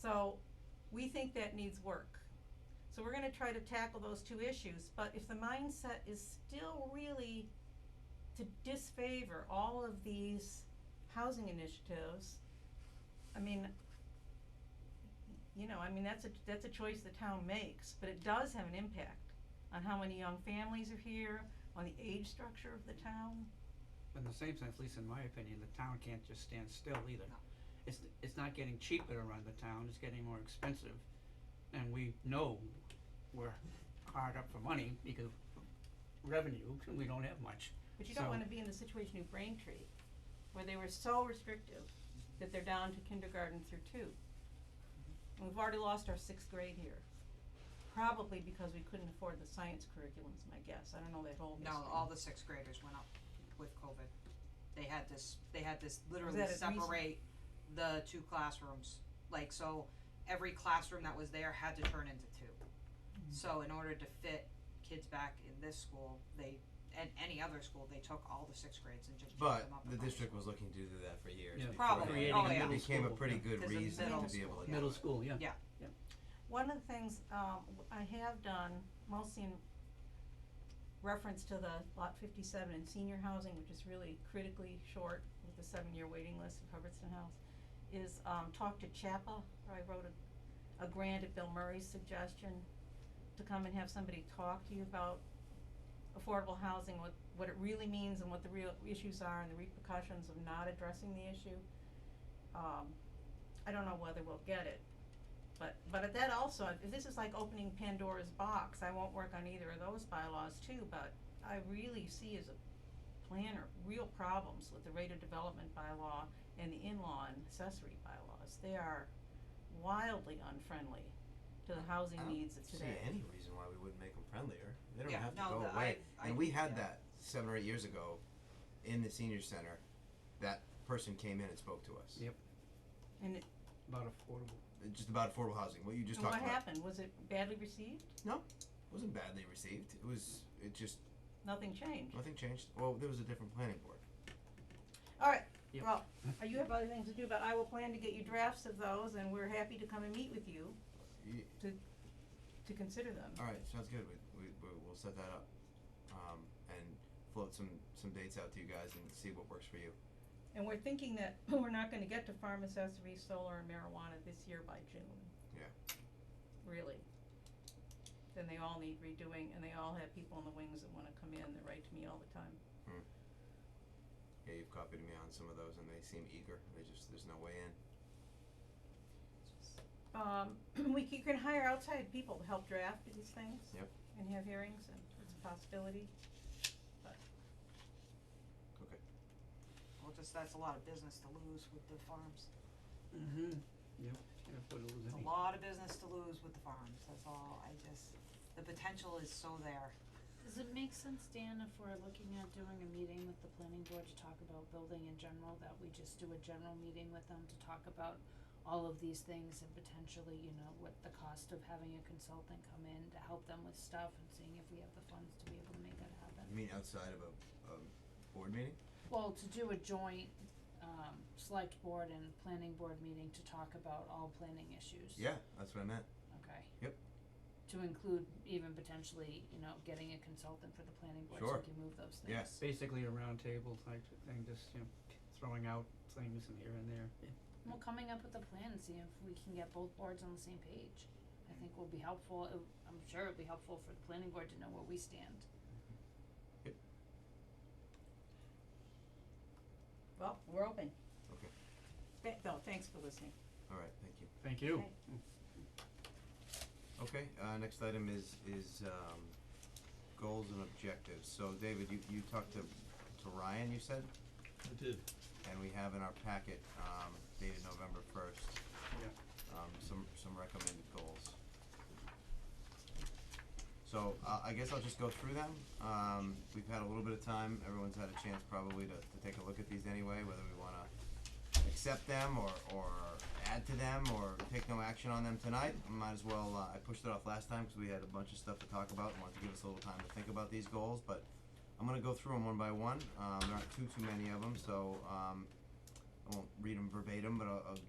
So, we think that needs work. So we're gonna try to tackle those two issues, but if the mindset is still really to disfavor all of these housing initiatives, I mean, you know, I mean, that's a, that's a choice the town makes, but it does have an impact on how many young families are here, on the age structure of the town. But in the same sense, at least in my opinion, the town can't just stand still either. It's, it's not getting cheaper to run the town, it's getting more expensive. And we know we're hard up for money because revenue, we don't have much. But you don't So- wanna be in the situation of Braintree, where they were so restrictive that they're down to kindergarten through two. And we've already lost our sixth grade here, probably because we couldn't afford the science curriculum is my guess, I don't know that whole No, history. all the sixth graders went up with COVID. They had this, they had this that literally at recent- separate the two classrooms, like, so every classroom that was there had to turn into two. Hmm. So in order to fit kids back in this school, they, and any other school, they took all the sixth grades and just jumped But them up. the in numbers. district was looking to do that for years. Yeah. before Probably. that. Creating a Oh, yeah. It middle became a school, pretty good There's a reason middle to be able to do Middle it. school, yeah. Yeah. One of the things, um, w- I have done, mostly in reference to the lot fifty-seven in senior housing, which is really critically short with the seven-year waiting list of Hubbardston House, is, um, talk to Chappa, where I wrote a, a grant at Bill Murray's suggestion to come and have somebody talk to you about affordable housing, what, what it really means and what the real issues are and the repercussions of not addressing the issue. Um, I don't know whether we'll get it, but, but at that also, if this is like opening Pandora's box, I won't work on either of those bylaws too, but I really see as a planner, real problems with the rate of development bylaw and the in-law and accessory bylaws. They are wildly unfriendly to the housing I don't needs of See, today. any reason why we wouldn't make them friendlier? They don't Yeah, have to no, go the- away. I- I- and we had yeah. that seven or eight years ago, in the senior center. That person came in and spoke to us. Yep. And it, About affordable. Uh, Just about affordable housing. What you just and talked what about happened? Was it badly received? wasn't badly received. It was. It just Nothing changed. nothing changed. Well, there was a different planning board. Alright, Yep. well, uh, you have other things to do, but I will plan to get you drafts of those and we're happy to come and meet with you You, to consider them. all right, sounds good. We, we we we'll set that up, um, and float some some dates out to you guys and see what works for you. And we're thinking that we're not gonna get to farm accessories, solar and marijuana this year by June. Yeah. Really. Then they all need redoing and they all have people in the wings that wanna come in, they write to me all the time. Yeah, you've copied me on some of those, and they seem eager. They just there's no way in. Um, we c- you can hire outside people to help draft these things. Yep. And have hearings and it's a possibility. Okay. Well, just, that's a lot of business to lose with the farms. Mm-hmm. Yep, yeah, but it was It's a any- lot of business to lose with the farms, that's all. I just, the potential is so there. Does it make sense, Dan, if we're looking at doing a meeting with the planning board to talk about building in general, that we just do a general meeting with them to talk about all of these things and potentially, you know, what the cost of having a consultant come in to help them with stuff and seeing if we have the funds to be able to make that happen? You mean outside of a, a board meeting? Well, to do a joint, um, select board and planning board meeting to talk about all planning issues. Yeah, that's what I meant. Okay. Yep. To include even potentially, you know, getting a consultant for the planning board so Sure. we can move those things. Yes. Basically a round table type thing, just, you know, throwing out things and here and there. Well, coming up with a plan and seeing if we can get both boards on the same page, I think will be helpful, It- I'm sure it'll be helpful for the planning board to know where we stand. Well, we're open. Okay. Th- no, thanks for listening. All right, thank Thank you. you. Mm, Okay. Okay, uh, next item is is um, goals and objectives. So David, you, you talked to to Ryan, you said, I did. and we have in our packet um, dated November first. Um, some some recommended goals. So uh, I guess I'll just go through them. Um, we've had a little bit of time. Everyone's had a chance probably to, to take a look at these anyway, whether we want to accept them or, or add to them or take no action on them tonight. I might as well. Uh, I pushed it off last time because we had a bunch of stuff to talk about and wanted to give us a little time to think about these goals. But I'm gonna go through them one by one. Um, there aren't too too many of them, so um, I won't read them verbatim, but I'll, I'll